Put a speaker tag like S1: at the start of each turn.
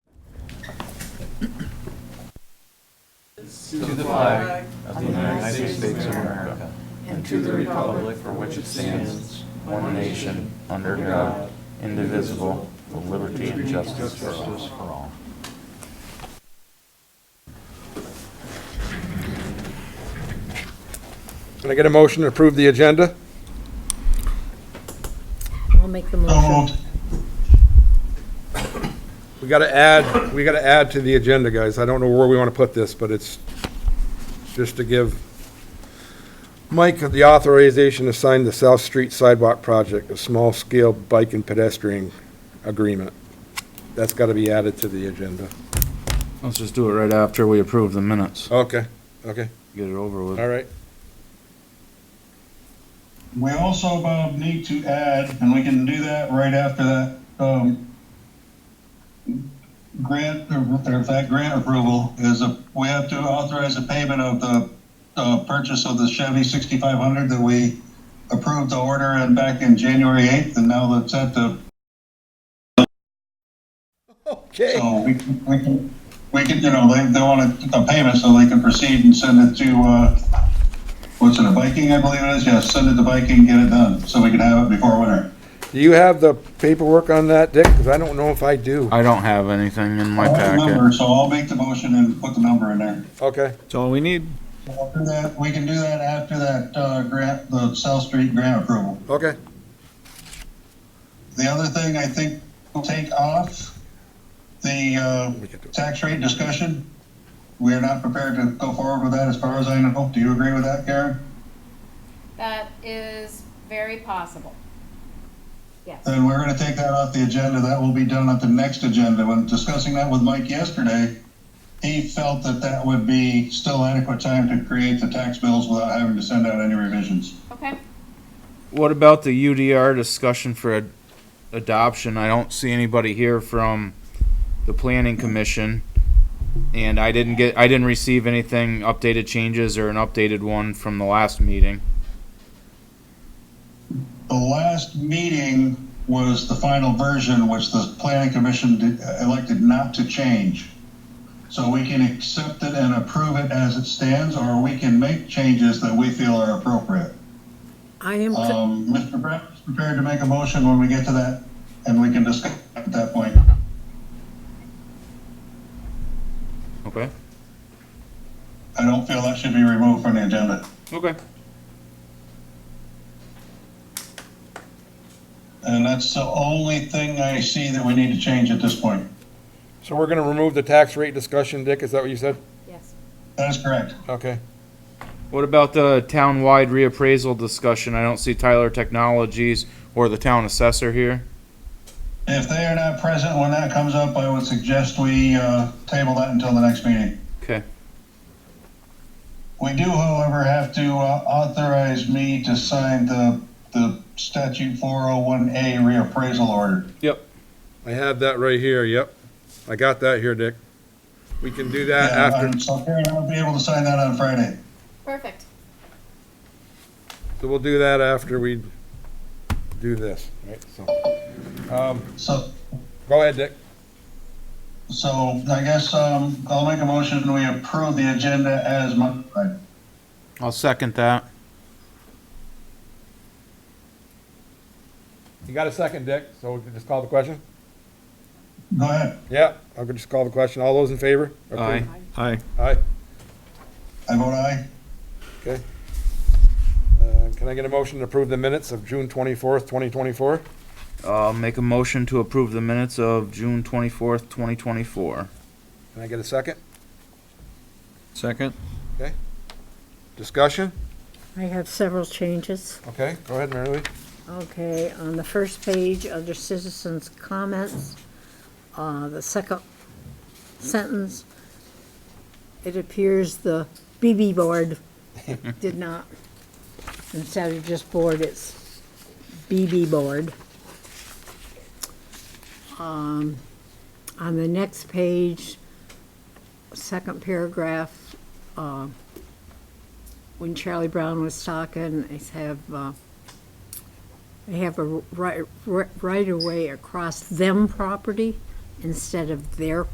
S1: to the flag of the United States of America
S2: and to the republic for which it stands, one nation, under God, indivisible, with liberty and justice for all.
S3: Can I get a motion to approve the agenda?
S4: I'll make the motion.
S3: We gotta add, we gotta add to the agenda, guys. I don't know where we wanna put this, but it's just to give Mike the authorization to sign the South Street Sidewalk Project, a small-scale bike and pedestrian agreement. That's gotta be added to the agenda.
S2: Let's just do it right after we approve the minutes.
S3: Okay, okay,
S2: Get it over with.
S3: all right.
S5: We also, Bob, need to add, and we can do that right after that, um, grant, or if that grant approval is a, we have to authorize a payment of the, uh, purchase of the Chevy sixty-five hundred that we approved the order and back in January eighth, and now that's at the,
S3: Okay.
S5: so we, can- we can, we can, you know, they, they want a, a payment so they can proceed and send it to, uh, what's it, a Viking, I believe it is, yes, send it to Viking, get it done, so we can have it before winter.
S3: Do you have the paperwork on that, Dick? Because I don't know if I do.
S2: I don't have anything in my
S5: I have the
S2: packet.
S5: number, so I'll make the motion and put the number in there.
S3: Okay,
S6: That's all we need.
S5: After that, we can do that after that, uh, grant, the South Street grant approval.
S3: okay.
S5: The other thing I think will take off, the, uh,
S3: We can do it.
S5: tax rate discussion. We are not prepared to go forward with that as far as I know. Do you agree with that, Karen?
S7: That is very possible. Yes.
S5: Then we're gonna take that off the agenda. That will be done at the next agenda. When discussing that with Mike yesterday, he felt that that would be still adequate time to create the tax bills without having to send out any revisions.
S7: Okay.
S2: What about the UDR discussion for ad- adoption? I don't see anybody here from the planning commission. And I didn't get, I didn't receive anything, updated changes or an updated one from the last meeting.
S5: The last meeting was the final version, which the planning commission did- elected not to change. So we can accept it and approve it as it stands, or we can make changes that we feel are appropriate.
S4: I am, co-
S5: Um, Mr. Brett is prepared to make a motion when we get to that, and we can discuss at that point.
S2: Okay?
S5: I don't feel that should be removed from the agenda.
S2: Okay.
S5: And that's the only thing I see that we need to change at this point.
S3: So we're gonna remove the tax rate discussion, Dick? Is that what you said?
S7: Yes.
S5: That is correct.
S3: Okay.
S2: What about the town-wide reappraisal discussion? I don't see Tyler Technologies or the town assessor here.
S5: If they are not present when that comes up, I would suggest we uh, table that until the next meeting.
S2: Okay.
S5: We do, however, have to uh, authorize me to sign the, the statute 401A reappraisal order.
S3: I have that right here, yep. I got that here, Dick. We can do that
S5: Yeah,
S3: Uh, after,
S5: um, So Karen, I'll be able to sign that on Friday.
S7: Perfect.
S3: so we'll do that after we do this, right? So, um,
S5: So,
S3: go ahead, Dick.
S5: so I guess um, I'll make a motion, we approve the agenda as modified.
S2: I'll second that.
S3: You got a second, Dick, so we can just call the question?
S5: Go ahead.
S3: Yeah, I could just call the question. All those in favor?
S2: Aye.
S6: Aye.
S3: Aye.
S5: I vote aye.
S3: Uh, Can I get a motion to approve the minutes of June twenty-fourth, twenty twenty-four?
S2: Uh, make a motion to approve the minutes of June twenty-fourth, twenty twenty-four.
S3: Can I get a second?
S6: Second.
S3: Discussion?
S4: I have several changes.
S3: Okay, go ahead, Mary Lee.
S4: Okay, on the first page, under citizens' comments, uh, the second sentence, it appears the BB board did not. Instead of just board, it's BB board. Um, on the next page, second paragraph, uh, when Charlie Brown was talking, I have, uh, they have a right, right-of-way across them property instead of their